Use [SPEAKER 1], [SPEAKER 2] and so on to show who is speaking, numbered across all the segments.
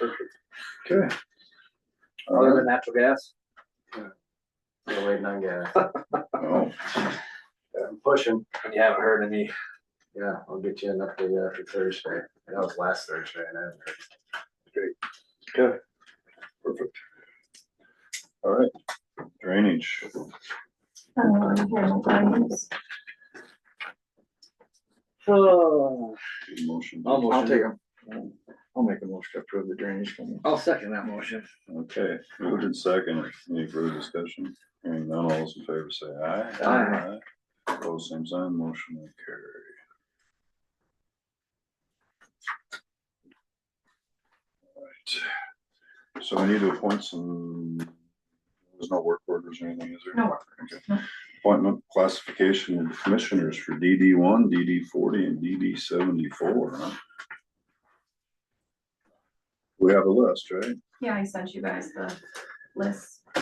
[SPEAKER 1] Okay.
[SPEAKER 2] Other than natural gas?
[SPEAKER 1] Yeah.
[SPEAKER 2] Still waiting on gas.
[SPEAKER 1] Oh,
[SPEAKER 2] I'm pushing. And you haven't heard any? Yeah, I'll get you an update after Thursday. That was last Thursday and I haven't heard.
[SPEAKER 1] okay. Perfect. All right, drainage.
[SPEAKER 3] Um, Harold Dines.
[SPEAKER 2] Oh,
[SPEAKER 1] Motion.
[SPEAKER 4] Um,
[SPEAKER 2] I'll take them.
[SPEAKER 4] I'll make a motion to approve the drainage plan.
[SPEAKER 2] I'll second that motion.
[SPEAKER 1] Okay, moved in second. Any further discussion? Hearing none, all those in favor say aye.
[SPEAKER 2] Aye.
[SPEAKER 1] Opposed, same sign, motion will carry. Alright, so we need to appoint some, there's no work orders or anything, is there?
[SPEAKER 3] No work.
[SPEAKER 1] Appointment classification of commissioners for DD one, DD forty, and DD seventy-four, huh? We have a list, right?
[SPEAKER 3] Yeah, I sent you guys the list.
[SPEAKER 4] I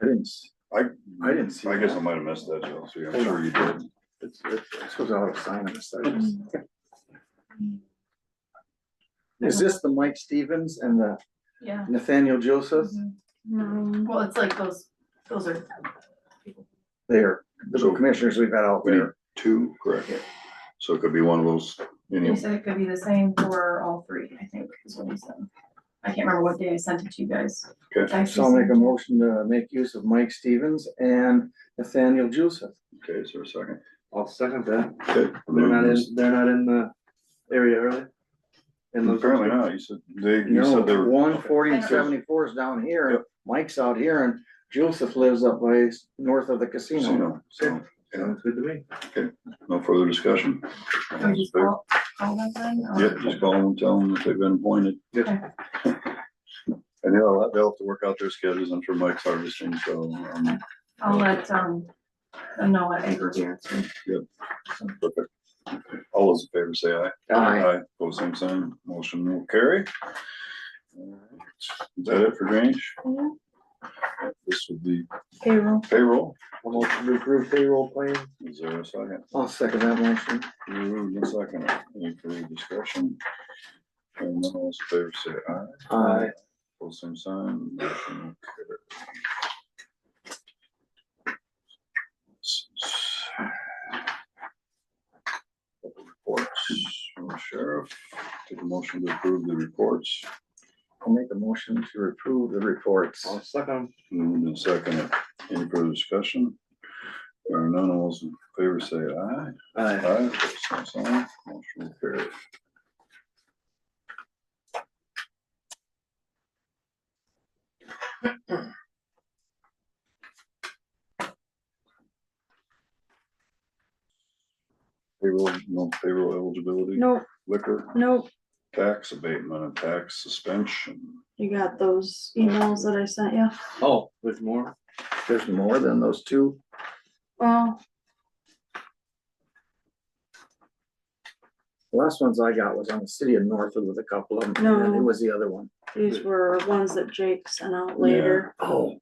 [SPEAKER 4] didn't, s-
[SPEAKER 1] I,
[SPEAKER 4] I didn't see
[SPEAKER 1] I guess I
[SPEAKER 4] that.
[SPEAKER 1] might have missed that, Chelsea, I'm sure you did.
[SPEAKER 4] it's, it's, this was out of sign on this, I just-
[SPEAKER 2] Mm-hmm.
[SPEAKER 4] Is this the Mike Stevens and the
[SPEAKER 3] Yeah. Mm-hmm.
[SPEAKER 4] Nathaniel Joseph?
[SPEAKER 2] Mm-hmm.
[SPEAKER 5] Mm-hmm.
[SPEAKER 3] Well, it's like those, those are,
[SPEAKER 4] They're the
[SPEAKER 1] So-
[SPEAKER 4] commissioners we've had out
[SPEAKER 1] We need
[SPEAKER 4] there.
[SPEAKER 1] two, correct? So it could be one of those, you
[SPEAKER 3] you
[SPEAKER 1] know,
[SPEAKER 3] said it could be the same for all three, I think, is what you said. I can't remember what day I sent it to you guys.
[SPEAKER 1] Okay.
[SPEAKER 3] I
[SPEAKER 4] So I'll make a
[SPEAKER 3] sent-
[SPEAKER 4] motion to make use of Mike Stevens and Nathaniel Joseph.
[SPEAKER 1] okay, is there a second?
[SPEAKER 2] I'll second that.
[SPEAKER 1] Okay.
[SPEAKER 2] They're not in, they're not in the area, early. In those-
[SPEAKER 1] Apparently not, you said, they, you
[SPEAKER 4] No,
[SPEAKER 1] said they were.
[SPEAKER 4] one forty and
[SPEAKER 3] I know.
[SPEAKER 4] seventy-four is down here, and
[SPEAKER 1] Yep.
[SPEAKER 4] Mike's out here, and Joseph lives up by, s- north of the casino.
[SPEAKER 1] Casino, so,
[SPEAKER 2] Sounds good to me.
[SPEAKER 1] no further discussion.
[SPEAKER 3] Can we Oh, just call, call them then? or-
[SPEAKER 1] Yep, just call them, and tell them that they've been appointed.
[SPEAKER 2] Yep.
[SPEAKER 1] And they'll, they'll have to work out their schedules, I'm sure Mike's harvesting, so, um,
[SPEAKER 3] I'll let, um, them know what acre we too.
[SPEAKER 1] perfect. All those in favor say aye.
[SPEAKER 4] Aye.
[SPEAKER 1] Aye, pose same sign, motion will carry. Is that it for drainage? This would be
[SPEAKER 3] Payroll.
[SPEAKER 1] payroll,
[SPEAKER 2] I'll motion to approve payroll plan.
[SPEAKER 1] is there a second?
[SPEAKER 4] I'll second that motion.
[SPEAKER 1] Moved and seconded. any further discussion? And then all those in favor say aye,
[SPEAKER 4] Aye.
[SPEAKER 1] pose same sign, motion will carry. Reports from the sheriff, take a motion to approve the reports.
[SPEAKER 4] I'll make a motion to approve the reports.
[SPEAKER 2] I'll second.
[SPEAKER 1] Moved and seconded. Any further discussion? There are none, all those in favor say aye.
[SPEAKER 2] Aye.
[SPEAKER 1] Aye. Same sign, motion carries. Payroll, no payroll eligibility?
[SPEAKER 5] Nope,
[SPEAKER 1] Liquor,
[SPEAKER 5] nope,
[SPEAKER 1] tax abatement and tax suspension.
[SPEAKER 5] you got those emails that I sent you.
[SPEAKER 2] Oh, there's more?
[SPEAKER 4] There's more than those two.
[SPEAKER 5] Well,
[SPEAKER 4] The Last ones I got was on the city of Northwood with a couple of them, and then it
[SPEAKER 5] No.
[SPEAKER 4] was the other one.
[SPEAKER 5] these were ones that Jake sent out later.
[SPEAKER 4] Oh.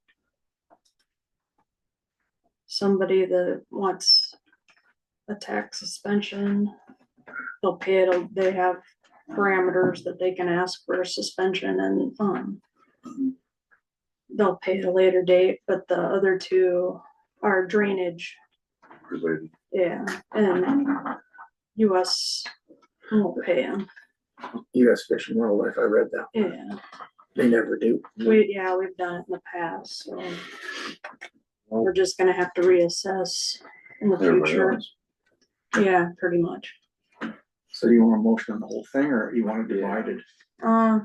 [SPEAKER 5] Somebody that wants a tax suspension. They'll pay it, they have parameters that they can ask for a suspension and, um, they'll pay at a later date, but the other two are drainage,
[SPEAKER 1] Related.
[SPEAKER 5] yeah, and US won't pay them,
[SPEAKER 4] US Fish and Wildlife, I read that.
[SPEAKER 5] yeah.
[SPEAKER 4] They never do.
[SPEAKER 5] We, yeah, we've done it in the past, so. We're just gonna have to reassess in the
[SPEAKER 1] Everybody
[SPEAKER 5] future,
[SPEAKER 1] else.
[SPEAKER 5] yeah, pretty much.
[SPEAKER 4] So do you want a motion on the whole thing, or you want it divided?
[SPEAKER 5] Uh,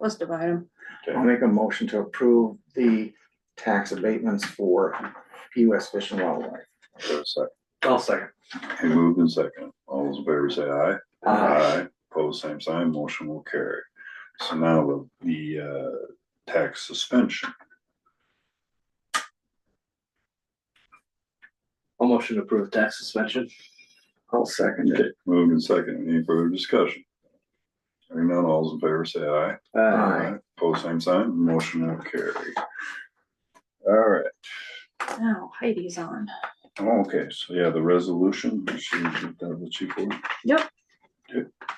[SPEAKER 5] let's divide them,
[SPEAKER 4] I'll make a motion to approve the tax abatements for US Fish and Wildlife.
[SPEAKER 1] Is there a second?
[SPEAKER 2] I'll second.
[SPEAKER 1] He moved and second. All those in favor say aye.
[SPEAKER 4] Aye.
[SPEAKER 1] Pose same sign, motion will carry. So now the, the, uh, tax suspension.
[SPEAKER 2] I'll motion to approve tax suspension.
[SPEAKER 4] I'll second it.
[SPEAKER 1] Moved and second. Any further discussion? Hearing none, all those in favor say aye.
[SPEAKER 2] Uh,
[SPEAKER 4] Aye.
[SPEAKER 1] Pose same sign, motion will carry. All right.
[SPEAKER 5] now Heidi's on.
[SPEAKER 1] uh, Okay, so yeah, the resolution, she, that what she for?
[SPEAKER 5] Yep.
[SPEAKER 1] Okay.